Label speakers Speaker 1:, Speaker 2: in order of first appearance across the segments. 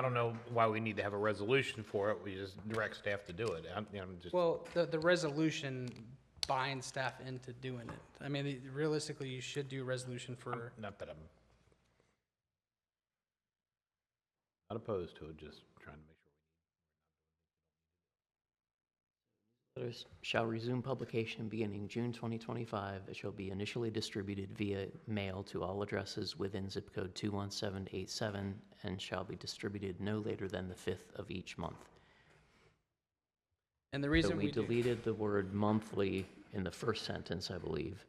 Speaker 1: don't know why we need to have a resolution for it. We just direct staff to do it. I'm, I'm just,
Speaker 2: Well, the, the resolution binds staff into doing it. I mean, it- realistically, you should do a resolution for,
Speaker 1: not that I'm not opposed to it, just trying to make sure.
Speaker 3: Letters shall resume publication beginning June 2025. It shall be initially distributed via mail to all addresses within zip code 21787 and shall be distributed no later than the 5th of each month.
Speaker 2: and the
Speaker 3: So
Speaker 2: reason
Speaker 3: we
Speaker 2: we do.
Speaker 3: deleted the word monthly in the first sentence, I believe.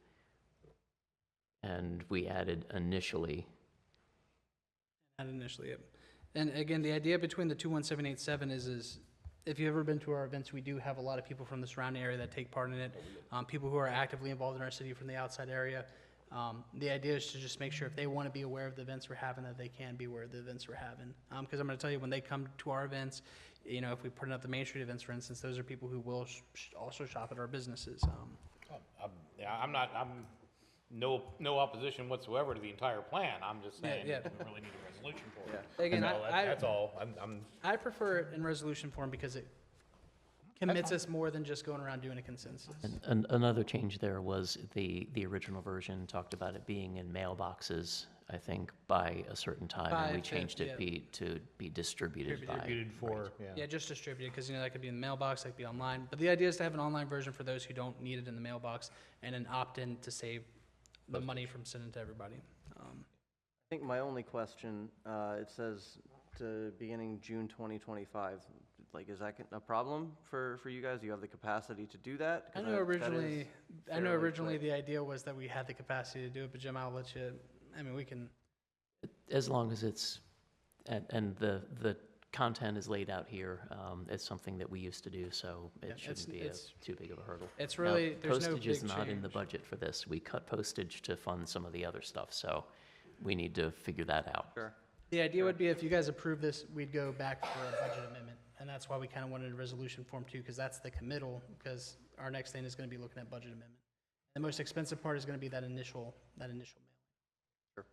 Speaker 3: And we added initially.
Speaker 2: Not initially, yep. And again, the idea between the two one seven eight seven is, is if you've ever been to our events, we do have a lot of people from the surrounding area that take part in it. Um, people who are actively involved in our city from the outside area. Um, the idea is to just make sure if they want to be aware of the events we're having, that they can be aware of the events we're having. Um, cause I'm gonna tell you, when they come to our events, you know, if we put up the Main Street events, for instance, those are people who will sh- sh- also shop at our businesses. Um,
Speaker 1: I'm, yeah, I'm not, I'm, no, no opposition whatsoever to the entire plan. I'm just
Speaker 2: Yeah,
Speaker 1: saying, we
Speaker 2: yeah.
Speaker 1: really need a resolution for it.
Speaker 2: Again,
Speaker 1: That's
Speaker 2: I-
Speaker 1: all. That-
Speaker 2: I-
Speaker 1: That's all. I'm, I'm,
Speaker 2: I prefer it in resolution form because it commits us more than just going around doing a consensus.
Speaker 3: And, and another change there was the, the original version talked about it being in mailboxes, I think, by a certain time.
Speaker 2: By
Speaker 3: And we
Speaker 2: fifth,
Speaker 3: changed it
Speaker 2: yeah.
Speaker 3: be, to be distributed by.
Speaker 1: distributed for,
Speaker 2: Yeah, just distributed, because, you know, that could be in the mailbox, that could be online. But the idea is to have an online version for those who don't need it in the mailbox, and an opt-in to save the money from sending to everybody. Um,
Speaker 4: I think my only question, uh, it says to beginning June 2025, like, is that a problem for, for you guys? Do you have the capacity to do that?
Speaker 2: I
Speaker 4: 'Cause
Speaker 2: know
Speaker 4: that- that
Speaker 2: originally,
Speaker 4: is-
Speaker 2: I know
Speaker 4: fairly
Speaker 2: originally the
Speaker 4: quick.
Speaker 2: idea was that we had the capacity to do it, but Jim, I'll let you, I mean, we can,
Speaker 3: As long as it's, and, and the, the content is laid out here, um, it's something that we used to do, so
Speaker 2: Yeah,
Speaker 3: it
Speaker 2: it's-
Speaker 3: shouldn't be a,
Speaker 2: it's-
Speaker 3: too big of a hurdle.
Speaker 2: it's
Speaker 3: Now,
Speaker 2: really, there's no big
Speaker 3: Postage is not in the
Speaker 2: change.
Speaker 3: budget for this. We cut postage to fund some of the other stuff, so we need to figure that out.
Speaker 4: Sure.
Speaker 2: The idea would be if you guys approve this, we'd go back for a budget amendment, and that's why we kind of wanted a resolution form too, because that's the committal, because our next thing is going to be looking at budget amendment. The most expensive part is going to be that initial, that initial mail.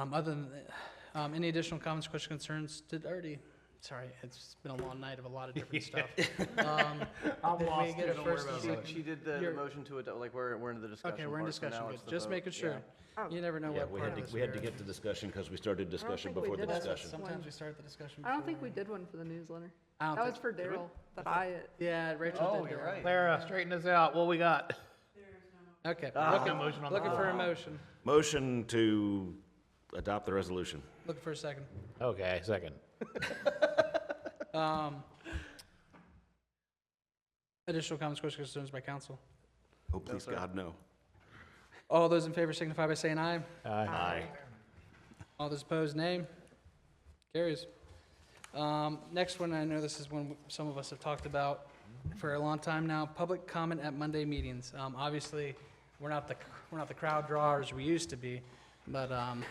Speaker 4: Sure.
Speaker 2: Um, other than, that, um, any additional comments, questions, concerns? Did already, sorry, it's been a long night of a lot of different stuff. Um,
Speaker 1: I'm
Speaker 2: did we
Speaker 1: lost,
Speaker 2: get
Speaker 1: too.
Speaker 2: a
Speaker 1: Don't worry
Speaker 2: first
Speaker 1: about it.
Speaker 2: and
Speaker 4: She,
Speaker 2: second?
Speaker 4: she did the the
Speaker 2: You're-
Speaker 4: motion to it, like, we're, we're in the discussion.
Speaker 2: Okay, we're in
Speaker 4: part, so
Speaker 2: discussion,
Speaker 4: now
Speaker 2: good.
Speaker 4: it's the
Speaker 2: just
Speaker 4: vote.
Speaker 2: making sure.
Speaker 4: Yeah.
Speaker 5: Oh.
Speaker 2: You never know
Speaker 6: Yeah,
Speaker 2: what
Speaker 6: we
Speaker 2: part
Speaker 6: had
Speaker 2: of
Speaker 6: to,
Speaker 2: this
Speaker 6: we had to
Speaker 2: we're in.
Speaker 6: get to discussion because we started discussion
Speaker 5: think we
Speaker 6: before the
Speaker 5: did that.
Speaker 6: discussion.
Speaker 2: Sometimes we start the discussion
Speaker 5: I don't think we
Speaker 2: before-
Speaker 5: did one for the newsletter.
Speaker 2: I don't Oh,
Speaker 5: That
Speaker 2: think-
Speaker 5: was for Daryl, that I,
Speaker 2: Yeah, Rachel did. do it.
Speaker 1: Clara, straighten us out. What we got?
Speaker 2: Okay, looking, looking for a motion.
Speaker 6: Motion to adopt the resolution.
Speaker 2: Looking for a second.
Speaker 1: Okay, second.
Speaker 2: Um, additional comments, questions, concerns by council?
Speaker 6: Oh, please, God, no.
Speaker 2: All those in favor signify by saying aye.
Speaker 6: Aye.
Speaker 2: All those opposed, nay. Carries. Um, next one, I know this is one some of us have talked about for a long time now, public comment at Monday meetings. Um, obviously, we're not the, we're not the crowd drawers we used to be, but, um,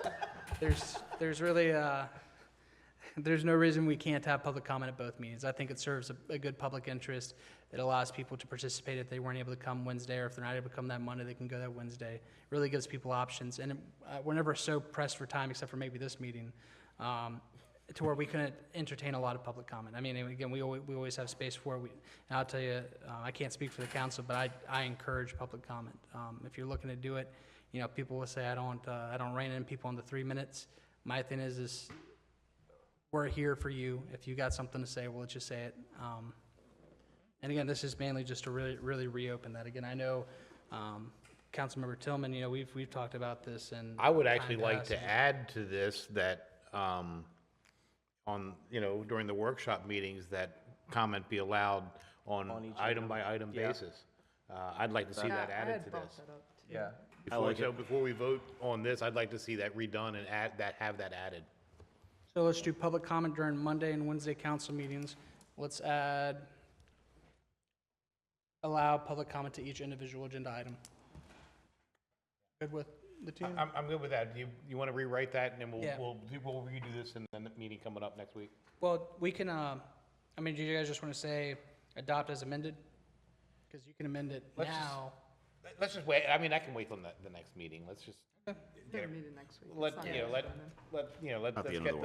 Speaker 2: there's, there's really, uh, there's no reason we can't have public comment at both meetings. I think it serves a, a good public interest. It allows people to participate if they weren't able to come Wednesday, or if they're not able to come that Monday, they can go that Wednesday. Really gives people options, and uh, we're never so pressed for time, except for maybe this meeting, um, to where we couldn't entertain a lot of public comment. I mean, and again, we always, we always have space for it. We, and I'll tell you, uh, I can't speak for the council, but I, I encourage public comment. Um, if you're looking to do it, you know, people will say, I don't, uh, I don't rein in people on the three minutes. My thing is, is we're here for you. If you got something to say, we'll let you say it. Um, and again, this is mainly just to really, really reopen that. Again, I know, um, Councilmember Tillman, you know, we've, we've talked about this and.
Speaker 1: I would actually
Speaker 2: time
Speaker 1: like to
Speaker 2: passed.
Speaker 1: add to this that, um, on, you know, during the workshop meetings, that comment be allowed on item by item basis. Uh, I'd like to see
Speaker 5: yeah,
Speaker 1: that
Speaker 5: I
Speaker 1: added
Speaker 5: had
Speaker 1: to
Speaker 5: brought
Speaker 1: this.
Speaker 5: that up too.
Speaker 4: Yeah.
Speaker 1: Before, so before we vote on this, I'd like to see that redone and add, that, have that added.
Speaker 2: So let's do public comment during Monday and Wednesday council meetings. Let's add, allow public comment to each individual agenda item. Good with the team?
Speaker 1: I'm, I'm good with that. You, you want to rewrite that and then we'll,
Speaker 2: Yeah.
Speaker 1: we'll, we'll redo this in the meeting coming up next week?
Speaker 2: Well, we can, uh, I mean, do you guys just want to say adopt as amended? Because you can amend it
Speaker 1: Let's just-
Speaker 2: now.
Speaker 1: Let- Let's just wait. I mean, I can wait till the, the next meeting. Let's just,
Speaker 5: We're gonna meet it next week. It's
Speaker 1: let,
Speaker 5: not
Speaker 1: you know,
Speaker 5: next
Speaker 1: let,
Speaker 5: Monday.
Speaker 1: let, you know, let-
Speaker 6: Not the
Speaker 1: let's
Speaker 6: end of
Speaker 1: get
Speaker 6: the